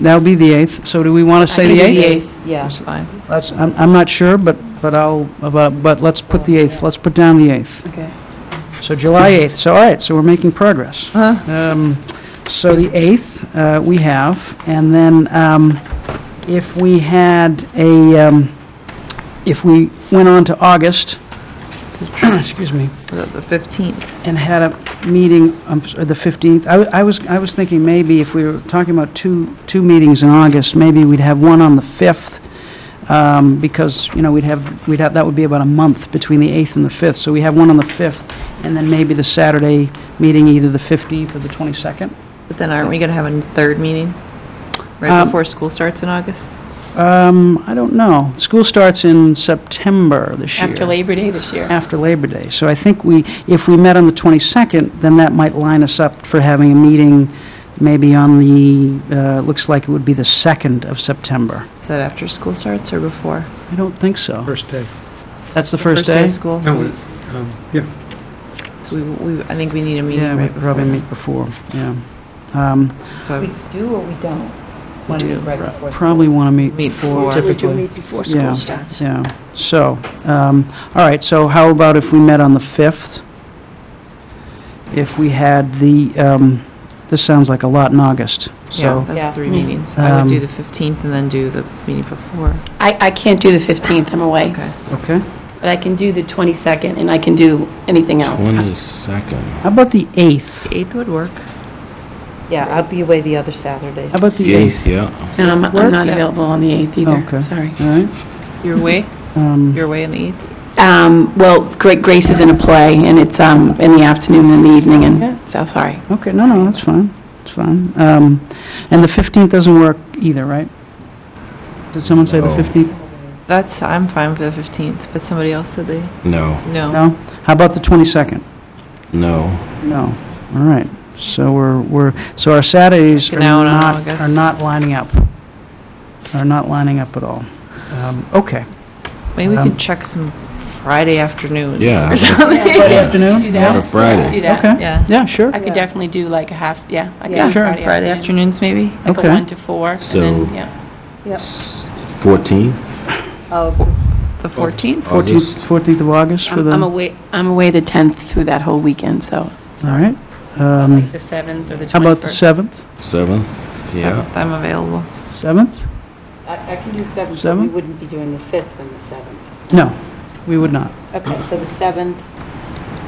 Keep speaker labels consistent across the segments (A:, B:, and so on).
A: That'll be the 8th, so do we want to say the 8th?
B: Yeah,
A: Yes.
B: fine.
A: That's, I'm, I'm not sure, but, but I'll, but, but let's put the 8th, let's put down the 8th.
B: Okay.
A: So July 8th, so all right, so we're making progress.
B: Uh-huh.
A: Um, So the 8th, uh, we have, and then um, if we had a, um, if we went on to August, excuse me,
B: The the 15th.
A: and had a meeting, um, s- the 15th, I w- I was, I was thinking maybe if we were talking about two, two meetings in August, maybe we'd have one on the 5th, um, because, you know, we'd have, we'd have, that would be about a month between the 8th and the 5th, so we have one on the 5th, and then maybe the Saturday meeting, either the 15th or the 22nd.
B: But then aren't we going to have a third meeting right
A: Um,
B: before school starts in August?
A: Um, I don't know, school starts in September this year.
C: After Labor Day this year.
A: after Labor Day. So I think we, if we met on the 22nd, then that might line us up for having a meeting maybe on the, uh, looks like it would be the 2nd of September.
B: Is that after school starts or before?
A: I don't think so.
D: First day.
A: That's the first day?
B: of school,
D: No,
B: so
D: um, Yeah,
B: so we, we- I think we need a meeting
A: Yeah, we
B: right before.
A: probably meet before, yeah. Um,
B: So I
E: We
B: would-
E: do or we don't?
B: We
E: Wanna
B: do.
E: meet right before school?
A: Probably want to meet
B: Meet
A: before
B: before.
E: We do
A: typically.
E: meet before
A: Yeah.
E: school starts.
A: Yeah, so, um, all right, so how about if we met on the 5th? If we had the, um, this sounds like a lot in August,
B: Yeah,
A: so.
E: Yeah.
B: that's three meetings. I would do
A: Um,
B: the 15th and then do the meeting before.
C: I, I can't do the 15th, I'm away,
B: Okay.
A: Okay.
C: but I can do the 22nd, and I can do anything else.
F: 22nd.
A: How about the 8th?
B: The 8th would work.
E: Yeah, I'll be away the other Saturdays.
A: How about the 8th?
F: Yes, yeah.
C: No, Um, I'm, I'm
A: Work?
C: not
B: Yeah.
C: available on the 8th
A: Okay.
C: either, sorry.
A: All right.
B: You're away?
A: Um,
B: You're away on the 8th?
C: Um, well, Great Grace is in a play, and it's, um, in the afternoon and the evening,
A: Yeah.
C: and, so, sorry.
A: Okay, no, no, that's fine, it's fine. Um, And the 15th doesn't work either, right? Did someone say the
F: No.
A: 15th?
B: That's, I'm fine with the 15th, but somebody else said they,
F: No,
B: no.
A: No? How about the 22nd?
F: no.
A: No, all right. So we're, we're, so our Saturdays are
B: Checking out on
A: not, are
B: August.
A: not lining up, are not lining up at all. Um, Okay.
B: Maybe we
A: Um,
B: could check some Friday afternoons
F: Yeah.
B: or something.
A: Friday afternoon?
F: that. Not a Friday.
C: Do that.
A: Okay,
B: Yeah.
A: yeah, sure,
C: I could definitely do like a half, yeah. I could
E: Yeah.
C: do
A: Sure.
B: Friday afternoons, maybe?
C: Like a
A: Okay.
C: 1 to 4, and
F: So-
C: then, yeah.
E: Yep.
F: S- 14th?
D: Oh,
B: The 14th?
A: 14th,
F: August.
A: 14th of August for
C: I'm
A: the,
C: I'm
A: all
C: away, I'm away the 10th through that whole weekend, so.
A: right. Um,
C: Like the 7th or the 21st.
A: How about the 7th?
F: 7th, yeah.
B: 7th, I'm available.
A: 7th?
G: I I can do 7th, but we
A: Seven?
G: wouldn't be doing the 5th and the 7th.
A: No, we would not.
G: Okay, so the 7th,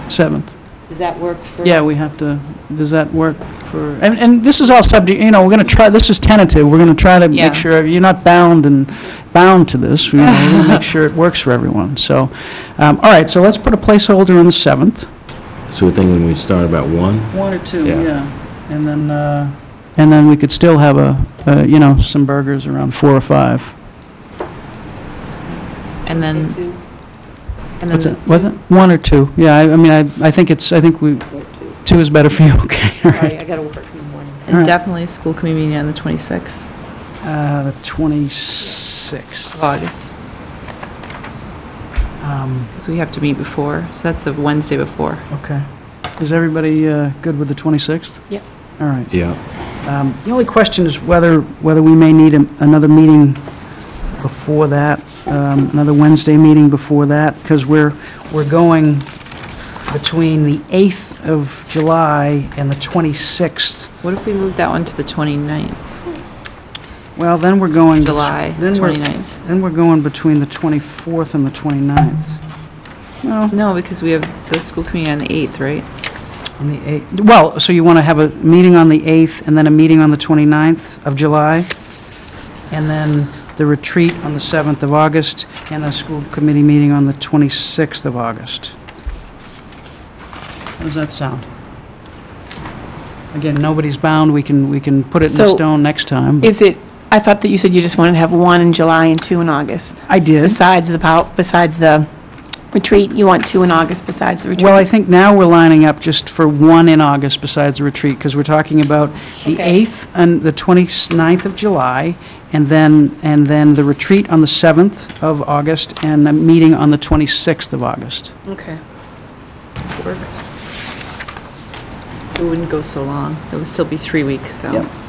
A: 7th.
G: does that work for?
A: Yeah, we have to, does that work for, and, and this is all subject, you know, we're going to try, this is tentative, we're going to try to
B: Yeah.
A: make sure, you're not bound and, bound to this, we want to make sure it works for everyone, so, um, all right, so let's put a placeholder on the 7th.
F: So we're thinking we start about 1?
A: One or two,
F: Yeah.
A: and then, uh... And then we could still have a, uh, you know, some burgers around 4 or 5.
B: And then,
G: Say two,
B: and
A: What's it,
B: then,
A: what, one or two, yeah, I I mean, I, I think it's, I think we,
G: or two.
A: two is better for you, okay, all right.
G: Sorry, I got to work in the morning.
A: Alright.
B: and definitely school committee meeting on the 26th
A: Uh, the
B: of
A: 26th.
B: August,
A: Um,
B: because we have to meet before, so that's the Wednesday before.
A: Okay. Is everybody uh, good with the 26th?
C: Yep.
A: All right.
F: Yeah.
A: Um, The only question is whether, whether we may need a- another meeting before that, um, another Wednesday meeting before that, because we're, we're going between the 8th of July and the 26th.
B: What if we move that one to the 29th,
A: Well, then we're going...
B: July
A: then we're-
B: 29th?
A: Then we're going between the 24th and the 29th. Well,
B: No, because we have the school committee on the 8th, right?
A: On the 8th, well, so you want to have a meeting on the 8th, and then a meeting on the 29th of July, and then the retreat on the 7th of August, and a school committee meeting on the 26th of August. How does that sound? Again, nobody's bound, we can, we can put it in
C: So-
A: stone next time. but-
C: Is it, I thought that you said you just wanted to have one in July and two in August.
A: I did.
C: Besides the, pow- besides the retreat, you want two in August besides the retreat?
A: Well, I think now we're lining up just for one in August besides the retreat, because we're talking about the
C: Okay.
A: 8th and the 29th of July, and then, and then the retreat on the 7th of August, and a meeting on the 26th of August.
C: Okay.
B: It wouldn't go so long. It would still be three weeks, though.
A: Yep.